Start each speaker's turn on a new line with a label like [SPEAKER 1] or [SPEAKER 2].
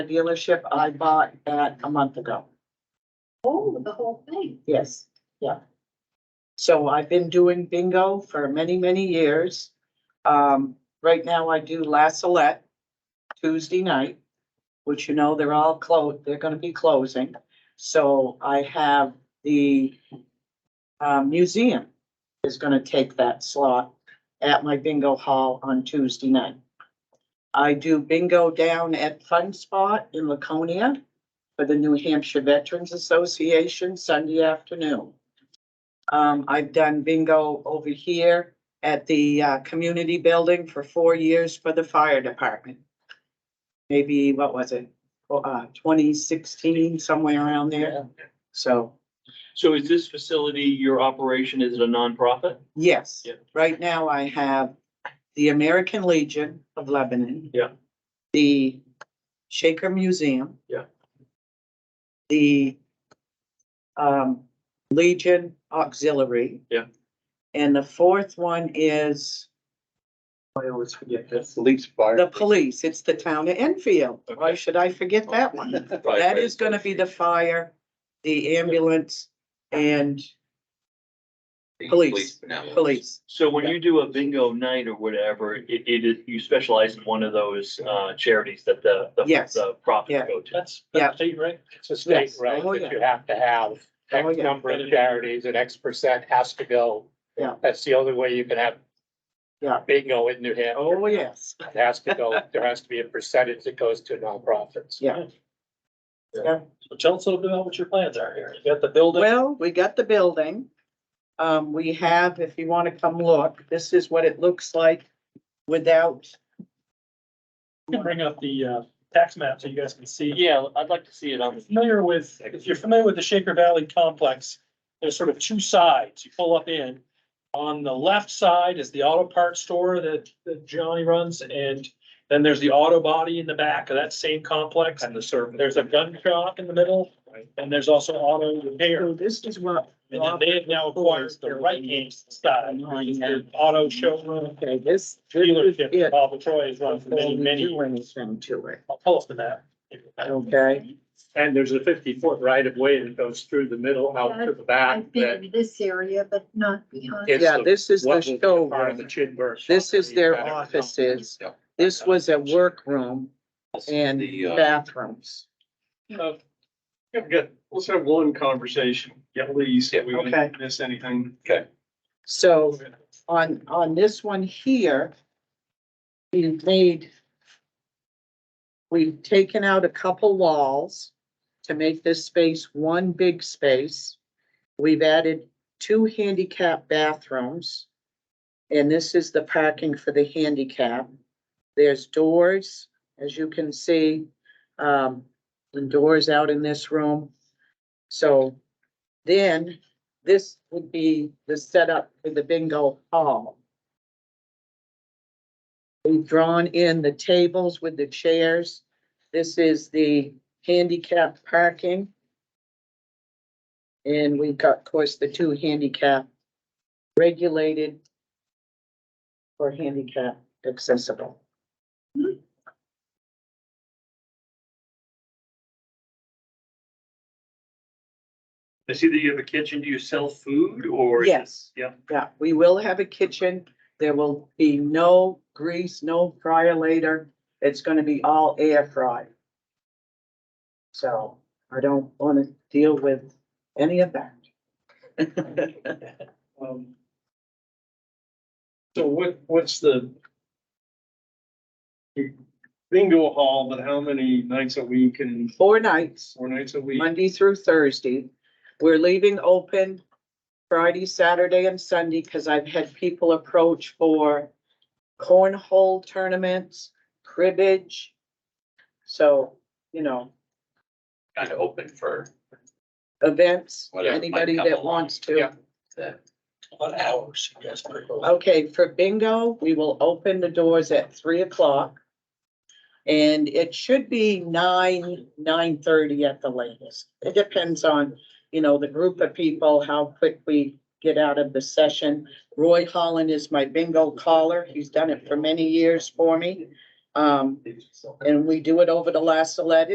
[SPEAKER 1] the dealership I bought that a month ago.
[SPEAKER 2] Oh, the whole thing.
[SPEAKER 1] Yes, yeah. So I've been doing bingo for many, many years. Um, right now I do La Salette Tuesday night, which you know, they're all closed, they're gonna be closing. So I have the uh, museum is gonna take that slot at my bingo hall on Tuesday night. I do bingo down at Fun Spot in Laconia for the New Hampshire Veterans Association Sunday afternoon. Um, I've done bingo over here at the, uh, community building for four years for the fire department. Maybe, what was it, Oh, uh, twenty sixteen, somewhere around there, so.
[SPEAKER 3] So is this facility, your operation, is it a nonprofit?
[SPEAKER 1] Yes,
[SPEAKER 3] Yeah.
[SPEAKER 1] right now I have the American Legion of Lebanon.
[SPEAKER 3] Yeah.
[SPEAKER 1] The Shaker Museum.
[SPEAKER 3] Yeah.
[SPEAKER 1] The um Legion Auxiliary.
[SPEAKER 3] Yeah.
[SPEAKER 1] And the fourth one is
[SPEAKER 3] I always forget this.
[SPEAKER 4] Police fire.
[SPEAKER 1] the police. It's the town of Enfield. Why
[SPEAKER 3] Okay. Oh,
[SPEAKER 1] should I forget that one?
[SPEAKER 3] Right,
[SPEAKER 1] That
[SPEAKER 3] right.
[SPEAKER 1] is gonna be the fire, the ambulance and police, police.
[SPEAKER 3] So when you do a bingo night or whatever, it, it is, you specialize in one of those, uh, charities that the, the,
[SPEAKER 1] Yes.
[SPEAKER 3] the
[SPEAKER 1] Yeah.
[SPEAKER 3] profits go to.
[SPEAKER 5] That's,
[SPEAKER 1] Yeah.
[SPEAKER 5] that's state, right? It's a state,
[SPEAKER 1] Yes.
[SPEAKER 5] right,
[SPEAKER 1] Oh,
[SPEAKER 5] that
[SPEAKER 1] yeah.
[SPEAKER 5] you have to have
[SPEAKER 1] Oh,
[SPEAKER 5] X
[SPEAKER 1] yeah.
[SPEAKER 5] number of charities and X percent has to go.
[SPEAKER 1] Yeah.
[SPEAKER 5] That's the only way you can have.
[SPEAKER 1] Yeah.
[SPEAKER 5] Bingo in New Hampshire.
[SPEAKER 1] Oh, yes.
[SPEAKER 5] It has to go, there has to be a percentage that goes to nonprofits.
[SPEAKER 1] Yeah. Yeah.
[SPEAKER 5] So tell us a little bit about what your plans are here. You got the building.
[SPEAKER 1] Well, we got the building. Um, we have, if you want to come look, this is what it looks like without.
[SPEAKER 6] can bring up the uh, tax map so you guys can see.
[SPEAKER 3] Yeah, I'd like to see it on.
[SPEAKER 6] If you're Familiar with, if you're familiar with the Shaker Valley complex, there's sort of two sides. You pull up in. On the left side is the auto parts store that that Johnny runs and then there's the auto body in the back of that same complex. And the service. There's a gun shop in the middle and there's also auto repair.
[SPEAKER 1] So this is what.
[SPEAKER 6] And then they have now acquired the right hand side, which is the auto showroom
[SPEAKER 1] Okay, this.
[SPEAKER 6] dealership.
[SPEAKER 1] it.
[SPEAKER 6] Bob Troy has run for many, many
[SPEAKER 1] Do anything to it,
[SPEAKER 6] I'll pull up the map.
[SPEAKER 1] okay?
[SPEAKER 5] And there's a fifty foot right of way that goes through the middle out to the back
[SPEAKER 2] I've been
[SPEAKER 5] that
[SPEAKER 2] in this area, but not beyond.
[SPEAKER 5] It's
[SPEAKER 1] Yeah,
[SPEAKER 5] the-
[SPEAKER 1] this is the
[SPEAKER 5] what will be part of the
[SPEAKER 1] showroom.
[SPEAKER 5] Chidburg shop
[SPEAKER 1] This is
[SPEAKER 5] that
[SPEAKER 1] their
[SPEAKER 5] you've got.
[SPEAKER 1] offices. This was a workroom and bathrooms.
[SPEAKER 3] Uh, yeah, good. Let's have one conversation, please.
[SPEAKER 4] Yeah.
[SPEAKER 3] We won't
[SPEAKER 1] Okay.
[SPEAKER 3] miss anything.
[SPEAKER 1] So on, on this one here, we've made, we've taken out a couple walls to make this space one big space. We've added two handicap bathrooms. And this is the parking for the handicap. There's doors, as you can see, um, and doors out in this room. So then this would be the setup for the bingo hall. We've drawn in the tables with the chairs. This is the handicap parking. And we've got, of course, the two handicap regulated or handicap accessible.
[SPEAKER 3] I see that you have a kitchen. Do you sell food or?
[SPEAKER 1] Yes.
[SPEAKER 3] yeah.
[SPEAKER 1] Yeah, we will have a kitchen. There will be no grease, no fryer later. It's gonna be all air fried. So I don't wanna deal with any of that.
[SPEAKER 5] Um, So what, what's the? Bingo hall, but how many nights a week and
[SPEAKER 1] Four nights,
[SPEAKER 5] four nights a week?
[SPEAKER 1] Monday through Thursday. We're leaving open Friday, Saturday and Sunday, cause I've had people approach for cornhole tournaments, cribbage. So, you know,
[SPEAKER 4] Kind of open for
[SPEAKER 1] events,
[SPEAKER 4] Whatever might
[SPEAKER 1] anybody
[SPEAKER 4] come
[SPEAKER 1] that
[SPEAKER 4] along.
[SPEAKER 1] wants to.
[SPEAKER 5] Yeah.
[SPEAKER 4] the,
[SPEAKER 6] About hours, yes, per close.
[SPEAKER 1] Okay, for bingo, we will open the doors at three o'clock. And it should be nine, nine thirty at the latest. It depends on, you know, the group of people, how quick we get out of the session. Roy Holland is my bingo caller. He's done it for many years for me. Um, and we do it over the last eleven.